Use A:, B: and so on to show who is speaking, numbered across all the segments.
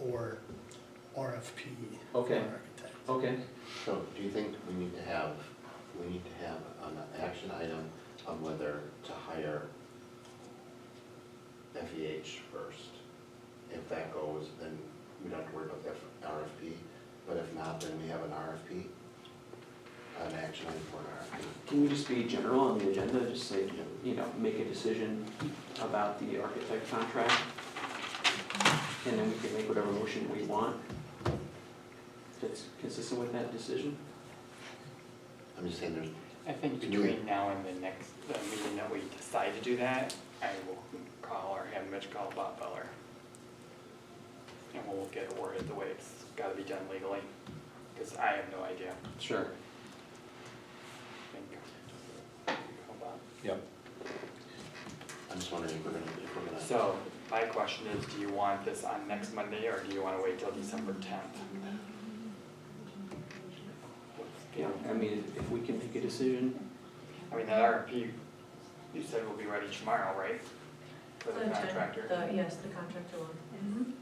A: or RFP. for
B: Okay.
A: architect.
B: Okay,
C: So do you think we need to have, we need to have an action item on whether to hire FEH first? If that goes, then we don't have to worry about the RFP, but if not, then we have an RFP? An action item for an
B: can you just be general on the agenda, just say, you know, make a decision about the architect contract? And then we can make whatever motion we want that's consistent with that decision?
C: RFP? I'm just saying there's,
D: I think
C: Can you-
D: between now and the next, the meeting that we decide to do that, I will call or have Mitch call Bob Beller. And we'll get it worded the way it's gotta be done legally, because I have no idea.
B: Sure.
D: I think- Call Bob.
C: I'm just wondering if we're gonna, if we're gonna.
D: So, my question is, do you want this on next Monday, or do you wanna wait till December tenth?
B: Yeah, I mean, if we can make a decision,
D: I mean, that RFP, you said will be ready tomorrow, right? For the
E: The-
D: contractor?
E: The, yes, the contractor one.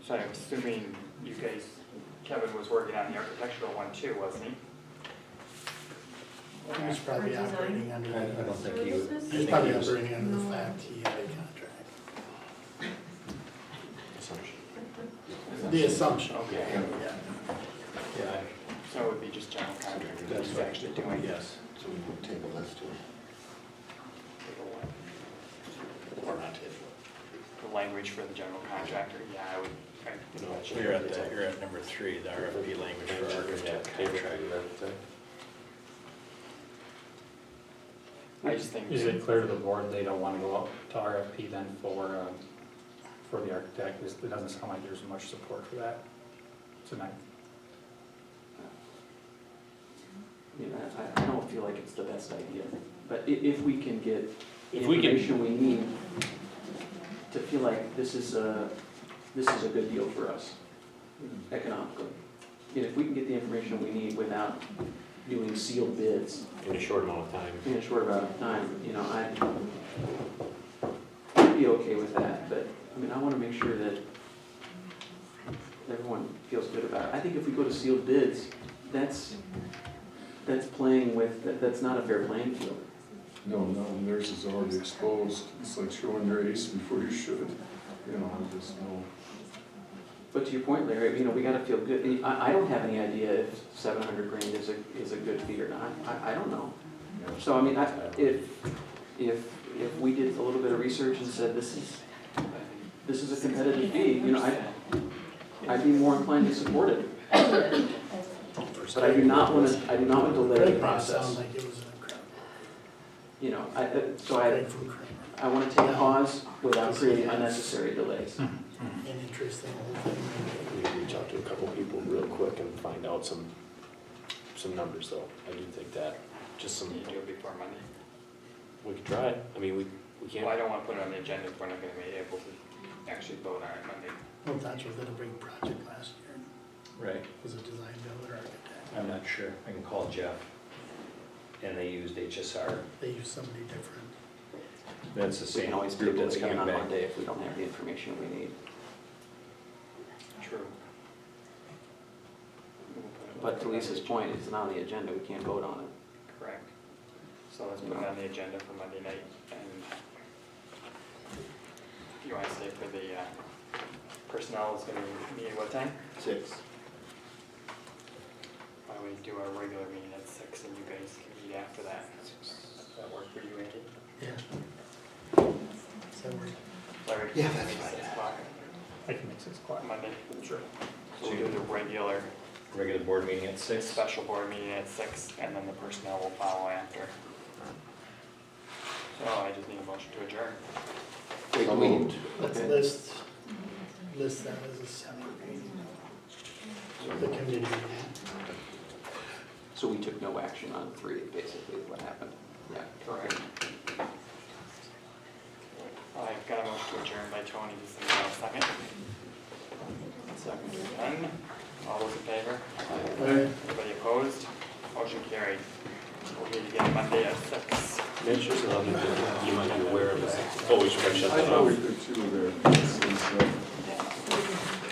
D: So I'm assuming you guys, Kevin was working on the architectural one too, wasn't he?
A: He was probably
E: Or design.
A: operating under,
F: I I don't
A: the-
F: think he would.
E: Services?
A: he was probably
F: I think he was-
A: operating under the
E: No.
A: fact he had a contract.
C: Assumption.
A: The assumption.
D: Okay,
A: Yeah.
F: Yeah,
D: so it would be just general contractor
F: I-
D: that
F: that's
D: he's
F: right.
D: actually doing.
F: Yes.
C: So we will table this to, or not table
D: The language for the general contractor, yeah, I would, I
F: You
D: would.
F: know, You're at, the- you're at number three, the RFP language for architect contract.
D: I just think.
G: Is it clear to the board they don't want to go up to RFP then for, um, for the architect? It doesn't sound like there's much support for that tonight.
B: you know, I, I don't feel like it's the best idea. But i- if we can get the
G: If we can-
B: information we need to feel like this is a, this is a good deal for us
G: Hmm.
B: economically. And if we can get the information we need without doing sealed bids
F: In a short amount of time.
B: in a short amount of time, you know, I, I'd be okay with that, but, I mean, I wanna make sure that everyone feels good about it. I think if we go to sealed bids, that's, that's playing with, that- that's not a fair playing field.
H: No, no, and theirs is already exposed. It's like showing their ace before you should, you know, I just know.
B: But to your point, Larry, you know, we gotta feel good, And I, I don't have any idea if seven hundred grand is a, is a good fee or not, I, I don't know. So, I mean, I, if, if, if we did a little bit of research and said, this is, this is a competitive fee, you know, I, I'd be more inclined to support it. But I do not want to, I do not want to delay the
A: Great process. Sounds
B: process.
A: like it was an incredible,
B: You know, I, uh, so I,
A: great from Kramer.
B: I want to take a pause without creating unnecessary
G: Mm-hmm.
B: delays.
A: An interesting whole thing.
F: We can reach out to a couple people real quick and find out some, some numbers though. I do think that, just some,
D: You do it before Monday.
F: we could try it. I mean, we, we
D: Well, I
F: can't.
D: don't wanna put it on the agenda if we're not gonna be able to actually vote on it Monday.
A: Well, that was a big project last year.
F: Right,
A: It Was a design builder architect.
F: I'm not sure. I can call Jeff. And they used HSR.
A: They used somebody different.
F: That's the
B: We
F: same
B: can always
F: group
B: table
F: that's
B: it again
F: coming
B: on
F: back.
B: Monday if we don't have the information we need.
D: True.
B: But to Lisa's point, it's not on the agenda, we can't vote on it.
D: Correct. So let's put it on the agenda for Monday night and you wanna say for the uh, personnel is gonna meet at what time?
C: Six.
D: Why don't we do our regular meeting at six and you guys can meet after that? Does that work for you, Andy?
A: Yeah. So we're,
D: Larry?
C: Yeah, that's fine.
D: Six o'clock
G: I can make six o'clock.
D: on Monday? Sure. So we'll do the regular
F: Regular board meeting at six.
D: special board meeting at six, and then the personnel will follow after. So I just need a motion to adjourn.
C: So moved.
A: let's
B: Okay.
A: list, list that as a separate meeting. The committee.
B: So we took no action on three, basically, is what happened. Yeah.
D: Correct. I've got a motion to adjourn by Tony, just in a second. Second is done. All those in favor?
A: Larry?
D: Anybody opposed? Motion carried. We'll meet again Monday at six.
F: Mitch, there's another thing you might be aware of. Oh, we should probably shut
H: I
F: that
H: thought
F: off.
H: we did two there. This is, uh,